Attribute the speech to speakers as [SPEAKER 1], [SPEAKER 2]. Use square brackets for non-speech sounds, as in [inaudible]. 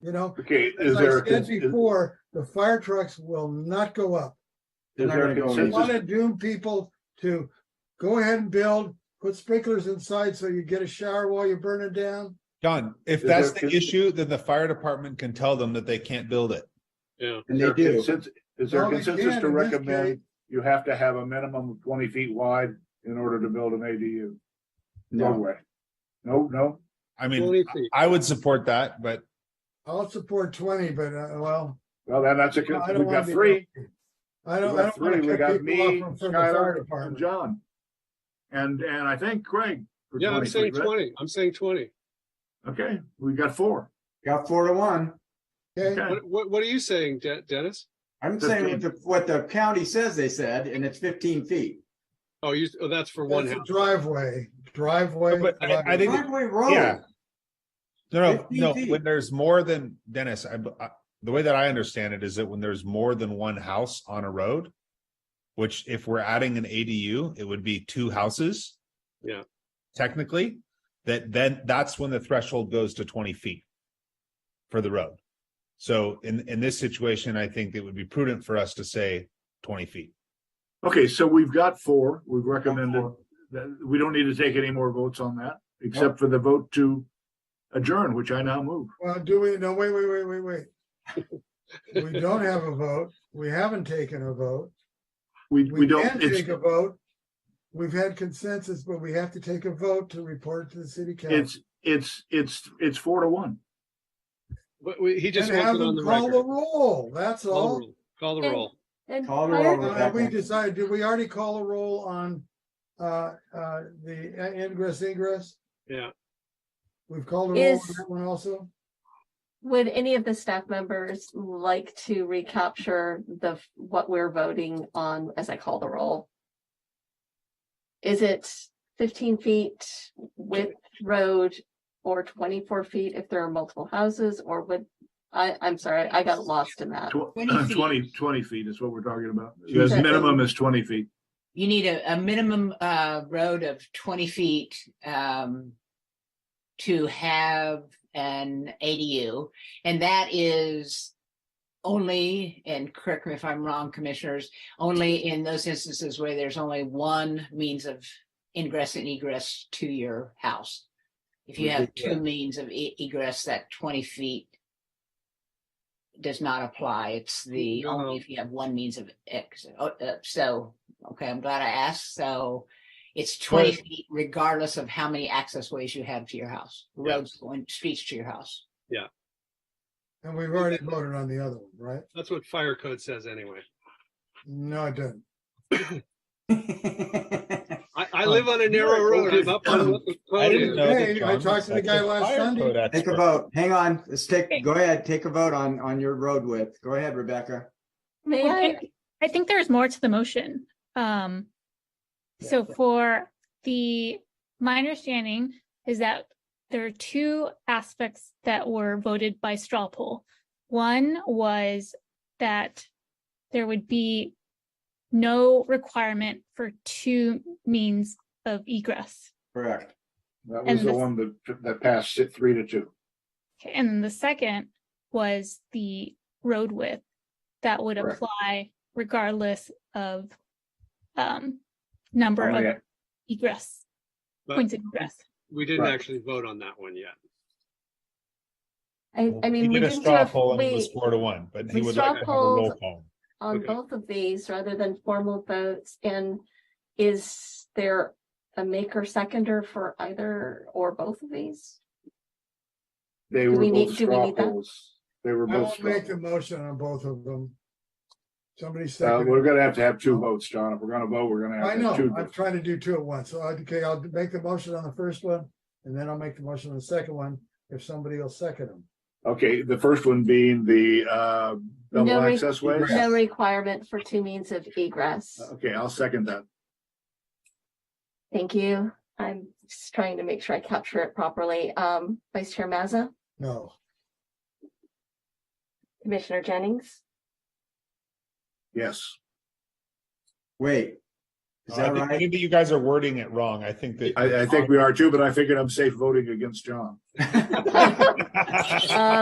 [SPEAKER 1] you know?
[SPEAKER 2] Okay,
[SPEAKER 1] As
[SPEAKER 2] is
[SPEAKER 1] I
[SPEAKER 2] there, a
[SPEAKER 1] said
[SPEAKER 2] cons- is
[SPEAKER 1] before, the fire trucks will not go up.
[SPEAKER 2] is there a
[SPEAKER 3] They're not gonna go
[SPEAKER 1] They want
[SPEAKER 2] consensus?
[SPEAKER 1] to doom people to go ahead and build, put sprinklers inside so you get a shower while you're burning down.
[SPEAKER 4] John, if
[SPEAKER 2] Is
[SPEAKER 4] that's
[SPEAKER 2] there
[SPEAKER 4] the
[SPEAKER 2] fifty-
[SPEAKER 4] issue, then the fire department can tell them that they can't build it.
[SPEAKER 2] Is
[SPEAKER 3] And
[SPEAKER 2] there
[SPEAKER 3] they
[SPEAKER 2] a
[SPEAKER 3] do.
[SPEAKER 2] consens- Is there a
[SPEAKER 1] Well, they
[SPEAKER 2] consensus
[SPEAKER 1] can
[SPEAKER 2] to
[SPEAKER 1] in this
[SPEAKER 2] recommend
[SPEAKER 1] case.
[SPEAKER 2] you have to have a minimum of twenty feet wide in order to build an ADU? No
[SPEAKER 3] No,
[SPEAKER 2] way. No, no,
[SPEAKER 4] I mean, I would support that, but
[SPEAKER 1] I'll support twenty, but uh, well,
[SPEAKER 2] well, then that's a,
[SPEAKER 1] I
[SPEAKER 2] con-
[SPEAKER 1] don't
[SPEAKER 2] we've
[SPEAKER 1] want
[SPEAKER 2] got
[SPEAKER 1] to be.
[SPEAKER 2] three,
[SPEAKER 1] I don't, I
[SPEAKER 2] we got
[SPEAKER 1] don't want
[SPEAKER 2] three, we
[SPEAKER 1] to
[SPEAKER 2] got
[SPEAKER 1] cut people
[SPEAKER 2] me,
[SPEAKER 1] off from- from the fire
[SPEAKER 2] Skylar, and
[SPEAKER 1] department.
[SPEAKER 2] John. And, and I think Craig. for
[SPEAKER 5] Yeah, I'm
[SPEAKER 2] 20 feet,
[SPEAKER 5] saying
[SPEAKER 2] right?
[SPEAKER 5] twenty, I'm saying twenty.
[SPEAKER 2] Okay, we got four.
[SPEAKER 3] got four to one.
[SPEAKER 1] Okay,
[SPEAKER 2] Okay,
[SPEAKER 5] What, what, what are you saying, De- Dennis?
[SPEAKER 3] I'm saying what the, what the county says they said, and it's fifteen feet.
[SPEAKER 5] Oh, you, oh, that's for one
[SPEAKER 1] that's a
[SPEAKER 5] house.
[SPEAKER 1] driveway, driveway.
[SPEAKER 4] But I- I
[SPEAKER 1] driveway.
[SPEAKER 4] think-
[SPEAKER 3] Driveway
[SPEAKER 4] Yeah.
[SPEAKER 3] road, [laughs]
[SPEAKER 4] no,
[SPEAKER 3] 15
[SPEAKER 4] no, no,
[SPEAKER 3] feet.
[SPEAKER 4] when there's more than, Dennis, I, I, the way that I understand it is that when there's more than one house on a road, which if we're adding an ADU, it would be two houses.
[SPEAKER 5] Yeah.
[SPEAKER 4] Technically, that then that's when the threshold goes to twenty feet for the road. So in, in this situation, I think it would be prudent for us to say twenty feet.
[SPEAKER 2] okay, so we've got four, we've recommended, that, we don't need to take any more votes on that, except for the vote to adjourn, which I now move.
[SPEAKER 1] Well, do we, no, wait, wait, wait, wait,
[SPEAKER 2] [laughs]
[SPEAKER 1] wait. We don't have a vote. We haven't taken a vote.
[SPEAKER 2] We, we
[SPEAKER 1] We can
[SPEAKER 2] don't,
[SPEAKER 1] take
[SPEAKER 2] it's,
[SPEAKER 1] a vote. We've had consensus, but we have to take a vote to report to the city council.
[SPEAKER 2] it's, it's, it's, it's four to one.
[SPEAKER 5] But we, he just
[SPEAKER 1] And
[SPEAKER 5] wants
[SPEAKER 1] have
[SPEAKER 5] it on
[SPEAKER 1] them
[SPEAKER 5] the
[SPEAKER 1] call the
[SPEAKER 5] record.
[SPEAKER 1] roll, that's
[SPEAKER 5] Call the
[SPEAKER 1] all.
[SPEAKER 5] roll. Call the roll.
[SPEAKER 6] And
[SPEAKER 3] Call the
[SPEAKER 6] fire-
[SPEAKER 3] roll,
[SPEAKER 1] Uh, We
[SPEAKER 3] Rebecca.
[SPEAKER 1] decided, did we already call a roll on uh, uh, the ingress ingress?
[SPEAKER 5] Yeah.
[SPEAKER 1] We've called a roll on
[SPEAKER 6] Is-
[SPEAKER 1] that one also?
[SPEAKER 6] Would any of the staff members like to recapture the, what we're voting on as I call the roll? Is it fifteen feet width road or twenty-four feet if there are multiple houses or would? I, I'm sorry, I got lost in that.
[SPEAKER 2] Tw- [clears throat]
[SPEAKER 7] 20 feet.
[SPEAKER 2] 20 20 feet is what we're talking about. The
[SPEAKER 4] Yes.
[SPEAKER 2] minimum is twenty feet.
[SPEAKER 7] You need a, a minimum, uh, road of twenty feet, um, to have an ADU, and that is only, and correct me if I'm wrong, commissioners, only in those instances where there's only one means of ingress and egress to your house. If you have two means of e- egress, that twenty feet does not apply. It's the,
[SPEAKER 5] No.
[SPEAKER 7] only if you have one means of exit. Oh, uh, So, okay, I'm glad I asked. So it's twenty
[SPEAKER 4] Right.
[SPEAKER 7] feet regardless of how many access ways you have to your house, roads going, streets to your house.
[SPEAKER 1] And we've already voted on the other one, right?
[SPEAKER 5] That's what fire code says anyway.
[SPEAKER 1] No, it doesn't.
[SPEAKER 5] I,
[SPEAKER 2] Oh.
[SPEAKER 5] I live on a narrow road. I'm up
[SPEAKER 1] [clears throat]
[SPEAKER 5] on what the
[SPEAKER 4] I
[SPEAKER 5] code
[SPEAKER 4] didn't
[SPEAKER 5] is.
[SPEAKER 4] know that
[SPEAKER 1] Hey, I
[SPEAKER 4] John was
[SPEAKER 1] talked to the
[SPEAKER 4] such a
[SPEAKER 1] guy last
[SPEAKER 4] fire
[SPEAKER 1] Sunday.
[SPEAKER 4] code
[SPEAKER 3] Take a
[SPEAKER 4] expert.
[SPEAKER 3] vote. Hang on, let's take, go ahead, take a vote on, on your road width. Go ahead, Rebecca.
[SPEAKER 6] May I?
[SPEAKER 8] I think there's more to the motion. Um, so for the, my understanding is that there are two aspects that were voted by straw poll. One was that there would be no requirement for two means of egress.
[SPEAKER 3] Correct.
[SPEAKER 2] That
[SPEAKER 8] And
[SPEAKER 2] was the
[SPEAKER 8] this-
[SPEAKER 2] one that, that passed it three to two.
[SPEAKER 8] Okay, And then the second was the road width that would
[SPEAKER 2] Correct.
[SPEAKER 8] apply regardless of um number
[SPEAKER 2] Only
[SPEAKER 8] of
[SPEAKER 2] at-
[SPEAKER 8] egress,
[SPEAKER 5] But
[SPEAKER 8] points of egress.
[SPEAKER 5] we didn't
[SPEAKER 2] Right.
[SPEAKER 5] actually vote on that one yet.
[SPEAKER 6] I, I
[SPEAKER 4] He
[SPEAKER 6] mean, we
[SPEAKER 4] did a
[SPEAKER 6] didn't do
[SPEAKER 4] straw
[SPEAKER 6] a-
[SPEAKER 4] poll and it was
[SPEAKER 6] we,
[SPEAKER 4] four to one, but he
[SPEAKER 6] we
[SPEAKER 4] would
[SPEAKER 6] straw
[SPEAKER 4] like to have a roll
[SPEAKER 6] polled-
[SPEAKER 4] call.
[SPEAKER 6] on
[SPEAKER 5] Okay.
[SPEAKER 6] both of these rather than formal votes? And is there a maker seconder for either or both of these?
[SPEAKER 2] They
[SPEAKER 6] Do
[SPEAKER 2] were
[SPEAKER 6] we need-
[SPEAKER 2] both
[SPEAKER 6] do we
[SPEAKER 2] straw
[SPEAKER 6] need that?
[SPEAKER 2] polls. They were
[SPEAKER 1] I
[SPEAKER 2] both
[SPEAKER 1] won't
[SPEAKER 2] straw.
[SPEAKER 1] make the motion on both of them. Somebody
[SPEAKER 2] Uh,
[SPEAKER 1] second.
[SPEAKER 2] we're gonna have to have two votes, John. If we're gonna vote, we're gonna have
[SPEAKER 1] I
[SPEAKER 2] to have two.
[SPEAKER 1] know, I'm
[SPEAKER 2] votes.
[SPEAKER 1] trying to do two at once, so I- okay, I'll make the motion on the first one, and then I'll make the motion on the second one, if somebody will second them.
[SPEAKER 2] Okay, the first one being the, uh,
[SPEAKER 6] No,
[SPEAKER 2] double
[SPEAKER 6] we-
[SPEAKER 2] access ways.
[SPEAKER 6] No requirement for two means of egress.
[SPEAKER 2] Okay, I'll second that.
[SPEAKER 6] Thank you. I'm just trying to make sure I capture it properly. Um, Vice Chair Mazza,
[SPEAKER 1] No,
[SPEAKER 6] Commissioner Jennings,
[SPEAKER 2] Yes.
[SPEAKER 3] Wait. Is
[SPEAKER 4] I
[SPEAKER 3] that
[SPEAKER 4] think- I
[SPEAKER 3] right?
[SPEAKER 4] think that you guys are wording it wrong. I think that.
[SPEAKER 3] [laughs]
[SPEAKER 2] I, I think we are too, but I figured I'm safe voting against John.
[SPEAKER 6] Uh,